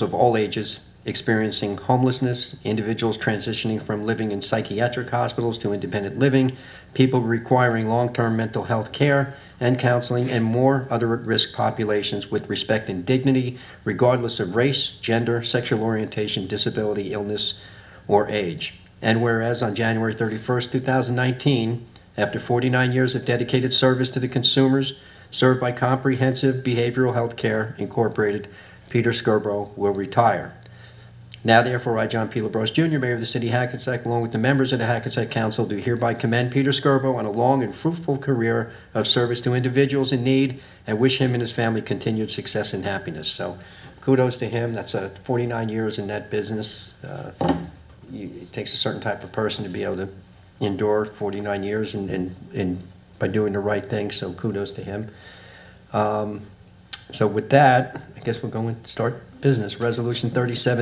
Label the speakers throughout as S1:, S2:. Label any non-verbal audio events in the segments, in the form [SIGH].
S1: of all ages experiencing homelessness, individuals transitioning from living in psychiatric hospitals to independent living, people requiring long term mental health care and counseling, and more other at risk populations with respect and dignity, regardless of race, gender, sexual orientation, disability, illness, or age. And whereas on January 31st, 2019, after 49 years of dedicated service to the consumers served by Comprehensive Behavioral Health Care Incorporated, Peter Scarborough will retire. Now therefore, I, John P. LaBrosse Jr., Mayor of the City of Hackensack, along with the members of the Hackensack Council, do hereby commend Peter Scarborough on a long and fruitful career of service to individuals in need and wish him and his family continued success and happiness. So kudos to him. That's uh, 49 years in that business. Uh, you- It takes a certain type of person to be able to endure 49 years and- and and by doing the right thing, so kudos to him. So with that, I guess we're going to start business. Resolution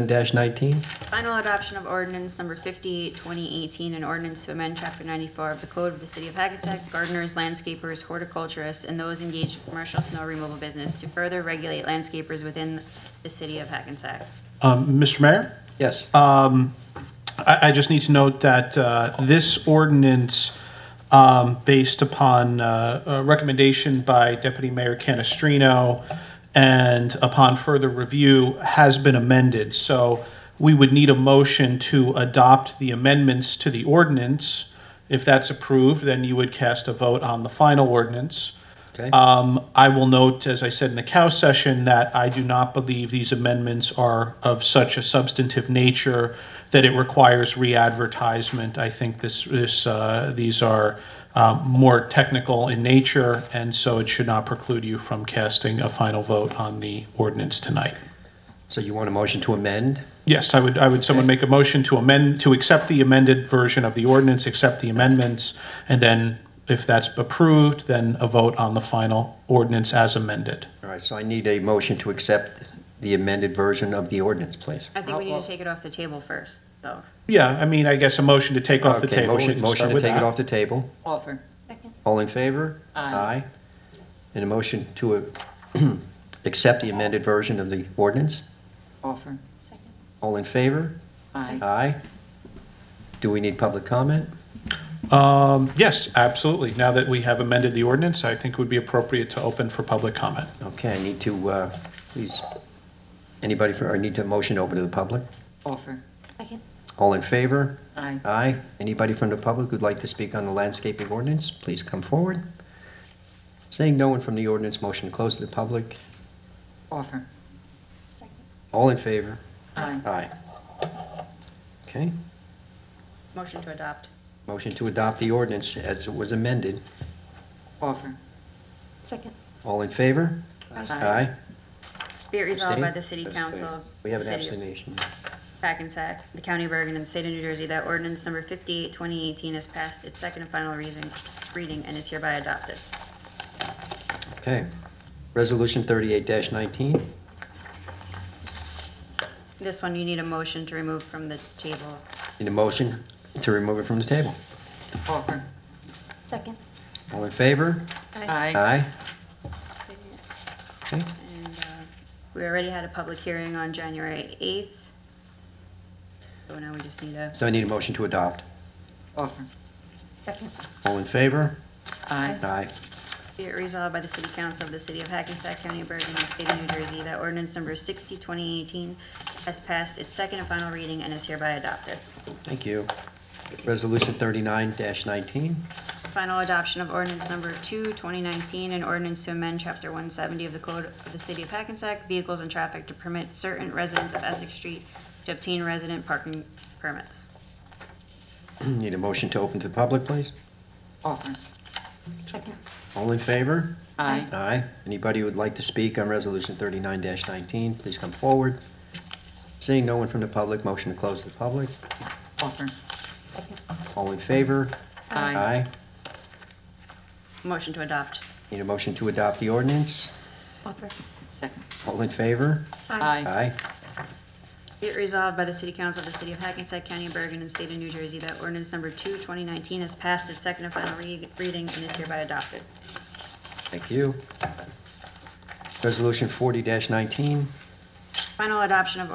S1: 37-19.
S2: Final adoption of ordinance number 58, 2018, an ordinance to amend Chapter 94 of the Code of the City of Hackensack, gardeners, landscapers, horticulturists, and those engaged in commercial snow removal business to further regulate landscapers within the City of Hackensack.
S3: Um, Mr. Mayor,
S1: Yes.
S3: I, I just need to note that uh, this ordinance, um, based upon uh, a recommendation by Deputy Mayor Canestrino and upon further review, has been amended. So we would need a motion to adopt the amendments to the ordinance. If that's approved, then you would cast a vote on the final ordinance.
S1: Okay.
S3: Um, I will note, as I said in the cow session, that I do not believe these amendments are of such a substantive nature that it requires re-advertisement. I think this, this, uh, these are, um, more technical in nature, and so it should not preclude you from casting a final vote on the ordinance tonight.
S1: So you want a motion to amend?
S3: Yes, I would, I would, someone make a motion to amend, to accept the amended version of the ordinance, accept the amendments, and then if that's approved, then a vote on the final ordinance as amended.
S1: All right, so I need a motion to accept the amended version of the ordinance, please.
S2: I think we need to take it off the table first, though.
S3: Yeah, I mean, I guess a motion to take off the
S1: Okay,
S3: table. We
S1: motion,
S3: can
S1: motion
S3: start
S1: to
S3: with
S1: take it
S3: that.
S1: off the table.
S4: Offer.
S1: All in favor?
S4: Aye.
S1: And a motion to uh, [CLEARS THROAT] accept the amended version of the ordinance?
S4: Offer.
S1: All in favor?
S4: Aye.
S1: Aye. Do we need public comment?
S3: Um, yes, absolutely. Now that we have amended the ordinance, I think it would be appropriate to open for public comment.
S1: Okay, I need to, uh, please, anybody, for- I need to motion open to the public?
S4: Offer.
S1: All in favor?
S4: Aye.
S1: Aye. Anybody from the public who'd like to speak on the landscaping ordinance, please come forward. Saying no one from the ordinance, motion to close to the public.
S4: Offer.
S1: All in favor?
S4: Aye.
S1: Aye. Okay,
S2: Motion to adopt.
S1: motion to adopt the ordinance as it was amended.
S4: Offer.
S5: Second.
S1: All in favor? Aye.
S2: Be it resolved by the City
S1: Abstain?
S2: Council. of
S1: We have an
S2: the City of
S1: abstention.
S2: Hackensack, the County of Bergen, and the State of New Jersey that ordinance number 58, 2018 has passed its second and final reason- reading and is hereby adopted.
S1: Okay. Resolution 38-19.
S2: This one you need a motion to remove from the table.
S1: Need a motion to remove it from the table.
S4: Offer.
S5: Second.
S1: All in favor?
S4: Aye.
S1: Aye. Okay.
S2: And uh, we already had a public hearing on January 8th. So now we just need a,
S1: So I need a motion to adopt.
S4: Offer.
S5: Second.
S1: All in favor?
S4: Aye.
S1: Aye.
S2: be it resolved by the City Council of the City of Hackensack County, of Bergen, and State of New Jersey that ordinance number 60, 2018 has passed its second and final reading and is hereby adopted.
S1: Thank you. Resolution 39-19.
S2: Final adoption of ordinance number 2, 2019, an ordinance to amend Chapter 170 of the Code of the City of Hackensack, Vehicles and Traffic to permit certain residents of Essex Street to obtain resident parking permits.
S1: [CLEARS THROAT] Need a motion to open to the public, please?
S4: Offer.
S5: Second.
S1: All in favor?
S4: Aye.
S1: Aye. Anybody who would like to speak on Resolution 39-19, please come forward. Seeing no one from the public, motion to close to the public.
S4: Offer.
S1: All in favor?
S4: Aye.
S2: Motion to adopt.
S1: Need a motion to adopt the ordinance?
S5: Offer.
S4: Second.
S1: All in favor?
S4: Aye.
S1: Aye.
S2: Be it resolved by the City Council of the City of Hackensack County, of Bergen, and State of New Jersey that ordinance number 2, 2019 has passed its second and final re- reading and is hereby adopted.
S1: Thank you. Resolution 40-19.
S2: Final adoption of ordinance